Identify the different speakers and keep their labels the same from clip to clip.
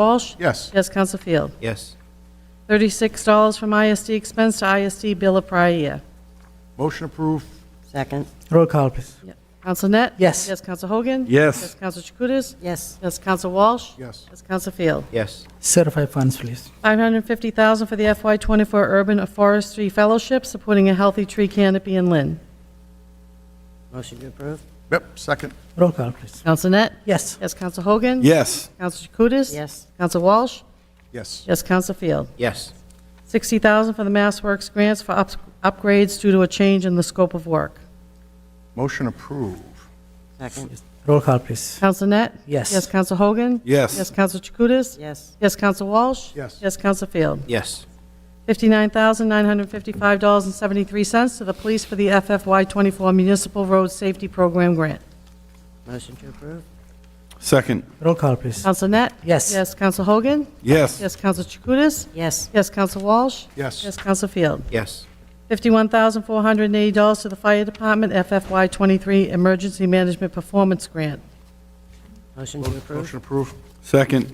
Speaker 1: Walsh?
Speaker 2: Yes.
Speaker 1: Yes, Counsel Field.
Speaker 3: Yes.
Speaker 1: $36 from ISD expense to ISD bill of prior year.
Speaker 2: Motion approved.
Speaker 4: Second.
Speaker 5: Roll call, please.
Speaker 1: Counsel Net?
Speaker 5: Yes.
Speaker 1: Yes, Counsel Hogan?
Speaker 2: Yes.
Speaker 1: Yes, Counsel Chakutis?
Speaker 4: Yes.
Speaker 1: Yes, Counsel Walsh?
Speaker 2: Yes.
Speaker 1: Yes, Counsel Field.
Speaker 3: Yes.
Speaker 5: Certify funds, please.
Speaker 1: 550000 for the FY24 Urban Forestry Fellowship, supporting a healthy tree canopy in Lynn.
Speaker 4: Motion to approve?
Speaker 2: Yep, second.
Speaker 5: Roll call, please.
Speaker 1: Counsel Net?
Speaker 5: Yes.
Speaker 1: Yes, Counsel Hogan?
Speaker 2: Yes.
Speaker 1: Counsel Chakutis?
Speaker 4: Yes.
Speaker 1: Counsel Walsh?
Speaker 2: Yes.
Speaker 1: Yes, Counsel Field.
Speaker 3: Yes.
Speaker 1: 60000 for the Mass Works grants for ups- upgrades due to a change in the scope of work.
Speaker 2: Motion approved.
Speaker 4: Second.
Speaker 5: Roll call, please.
Speaker 1: Counsel Net?
Speaker 5: Yes.
Speaker 1: Yes, Counsel Hogan?
Speaker 2: Yes.
Speaker 1: Yes, Counsel Chakutis?
Speaker 4: Yes.
Speaker 1: Yes, Counsel Walsh?
Speaker 2: Yes.
Speaker 1: Yes, Counsel Field.
Speaker 3: Yes.
Speaker 1: $59,955.73 to the police for the FFY24 Municipal Road Safety Program grant.
Speaker 4: Motion to approve?
Speaker 2: Second.
Speaker 5: Roll call, please.
Speaker 1: Counsel Net?
Speaker 5: Yes.
Speaker 1: Yes, Counsel Hogan?
Speaker 2: Yes.
Speaker 1: Yes, Counsel Chakutis?
Speaker 4: Yes.
Speaker 1: Yes, Counsel Walsh? Yes,
Speaker 2: Yes.
Speaker 1: Counsel Field.
Speaker 3: Yes.
Speaker 1: $51,480 to the Fire Department FFY23 Emergency Management Performance Grant.
Speaker 4: Motion to approve?
Speaker 2: Motion approved. Second.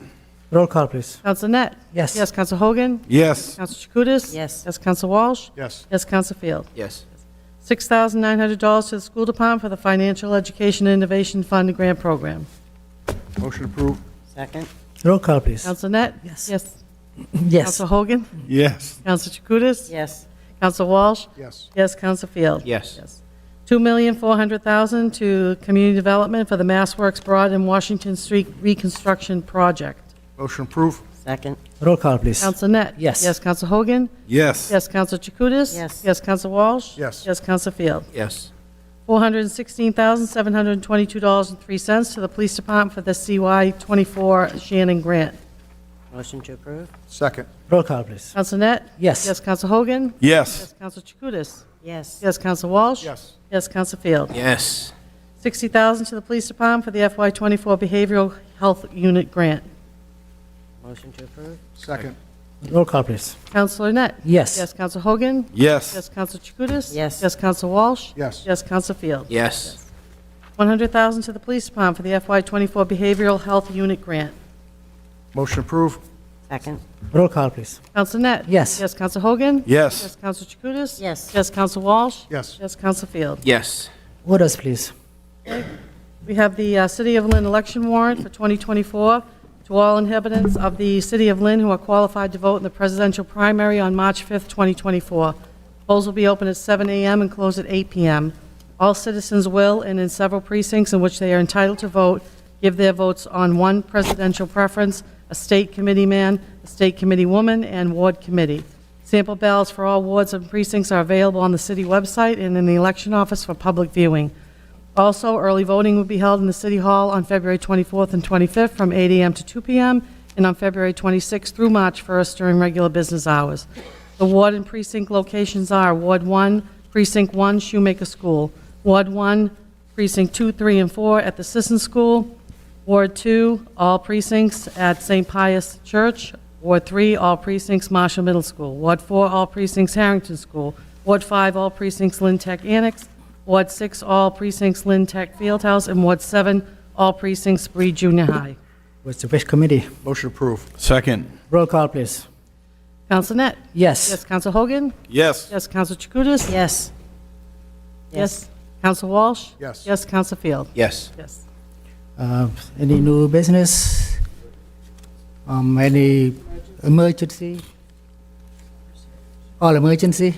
Speaker 5: Roll call, please.
Speaker 1: Counsel Net?
Speaker 5: Yes.
Speaker 1: Yes, Counsel Hogan?
Speaker 2: Yes.
Speaker 1: Counsel Chakutis?
Speaker 4: Yes.
Speaker 1: Yes, Counsel Walsh?
Speaker 2: Yes.
Speaker 1: Yes, Counsel Field.
Speaker 3: Yes.
Speaker 1: $6,900 to the School Department for the Financial Education Innovation Fund Grant Program.
Speaker 2: Motion approved.
Speaker 4: Second?
Speaker 5: Roll call, please.
Speaker 1: Counsel Net?
Speaker 5: Yes.
Speaker 1: Yes.
Speaker 5: Yes.
Speaker 1: Counsel Hogan?
Speaker 2: Yes.
Speaker 1: Counsel Chakutis?
Speaker 4: Yes.
Speaker 1: Counsel Walsh?
Speaker 2: Yes.
Speaker 1: Yes, Counsel Field.
Speaker 3: Yes.
Speaker 1: $2,400,000 to Community Development for the Mass Works Broad and Washington Street Reconstruction Project.
Speaker 2: Motion approved.
Speaker 4: Second?
Speaker 5: Roll call, please.
Speaker 1: Counsel Net?
Speaker 5: Yes.
Speaker 1: Yes, Counsel Hogan?
Speaker 2: Yes.
Speaker 1: Yes, Counsel Chakutis?
Speaker 4: Yes.
Speaker 1: Yes, Counsel Walsh?
Speaker 2: Yes.
Speaker 1: Yes, Counsel Field.
Speaker 3: Yes.
Speaker 1: $416,722.03 to the Police Department for the CY24 Shannon Grant.
Speaker 4: Motion to approve?
Speaker 2: Second.
Speaker 5: Roll call, please.
Speaker 1: Counsel Net?
Speaker 5: Yes.
Speaker 1: Yes, Counsel Hogan?
Speaker 2: Yes.
Speaker 1: Yes, Counsel Chakutis?
Speaker 4: Yes.
Speaker 1: Yes, Counsel Walsh?
Speaker 2: Yes.
Speaker 1: Yes, Counsel Field.
Speaker 3: Yes.
Speaker 1: 60000 to the Police Department for the FY24 Behavioral Health Unit Grant.
Speaker 4: Motion to approve?
Speaker 2: Second.
Speaker 5: Roll call, please.
Speaker 1: Counselor Net?
Speaker 5: Yes.
Speaker 1: Yes, Counsel Hogan? Yes,
Speaker 2: Yes.
Speaker 1: Counsel Chakutis?
Speaker 4: Yes.
Speaker 1: Yes, Counsel Walsh?
Speaker 2: Yes.
Speaker 1: Yes, Counsel Field.
Speaker 3: Yes.
Speaker 1: 100000 to the Police Department for the FY24 Behavioral Health Unit Grant.
Speaker 2: Motion approved.
Speaker 4: Second?
Speaker 5: Roll call, please.
Speaker 1: Counsel Net?
Speaker 5: Yes.
Speaker 1: Yes, Counsel Hogan? Yes,
Speaker 2: Yes.
Speaker 1: Counsel Chakutis?
Speaker 4: Yes.
Speaker 1: Yes, Counsel Walsh?
Speaker 2: Yes.
Speaker 1: Yes, Counsel Field.
Speaker 3: Yes.
Speaker 5: Orders, please.
Speaker 1: We have the uh, City of Lynn election warrant for 2024 to all inhabitants of the City of Lynn who are qualified to vote in the presidential primary on March 5th, 2024. Polls will be open at 7 a.m. and close at 8 p.m. All citizens will, and in several precincts in which they are entitled to vote, give their votes on one presidential preference, a state committee man, a state committee woman, and ward committee. Sample ballots for all wards and precincts are available on the city website and in the election office for public viewing. Also, early voting will be held in the City Hall on February 24th and 25th from 8 a.m. to 2 p.m., and on February 26th through March 1st during regular business hours. The ward and precinct locations are Ward 1, Precinct 1, Shoemaker School, Ward 1, Precinct 2, 3, and 4 at the Sisson School, Ward 2, all precincts at St. Pius Church. Ward 3, all precincts Marshall Middle School. Ward 4, all precincts Harrington School. Ward 5, all precincts Lynn Tech Annex. Ward 6, all precincts Lynn Tech Fieldhouse. And Ward 7, all precincts Bree Junior High.
Speaker 5: What's the wish committee?
Speaker 2: Motion approved. Second.
Speaker 5: Roll call, please.
Speaker 1: Counsel Net? Yes,
Speaker 5: Yes.
Speaker 1: Counsel Hogan?
Speaker 2: Yes.
Speaker 1: Yes, Counsel Chakutis?
Speaker 4: Yes.
Speaker 1: Yes. Counsel Walsh?
Speaker 2: Yes.
Speaker 1: Yes, Counsel Field?
Speaker 3: Yes.
Speaker 1: Yes.
Speaker 5: Uh, Any new business? Um, Any emergency? All emergency?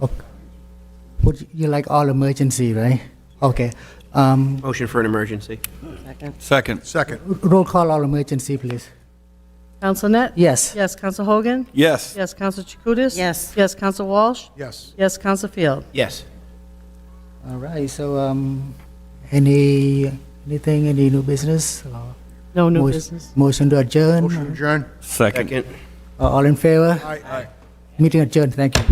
Speaker 5: Ok- Would you like all emergency, right? Okay. Um,
Speaker 3: Motion for an emergency.
Speaker 4: Second?
Speaker 2: Second. Second.
Speaker 5: Roll call all emergency, please.
Speaker 1: Counsel Net?
Speaker 5: Yes.
Speaker 1: Yes, Counsel Hogan?
Speaker 2: Yes.
Speaker 1: Yes, Counsel Chakutis?
Speaker 4: Yes.
Speaker 1: Yes, Counsel Walsh?
Speaker 2: Yes.
Speaker 1: Yes, Counsel Field?
Speaker 3: Yes.
Speaker 5: All right, so um, any, anything, any new business? or
Speaker 1: No new
Speaker 5: motion-
Speaker 1: business.
Speaker 5: Motion to adjourn?
Speaker 2: Motion adjourned.
Speaker 6: Second.
Speaker 3: Second.
Speaker 5: Uh, All in favor?
Speaker 2: Aye, aye.
Speaker 5: Meeting adjourned, thank you.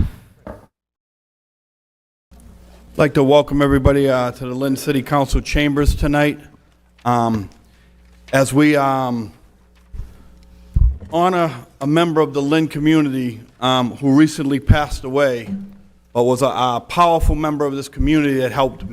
Speaker 6: I'd like to welcome everybody uh, to the Lynn City Council chambers tonight. Um, As we um, honor a member of the Lynn community um, who recently passed away, but was a a powerful member of this community that helped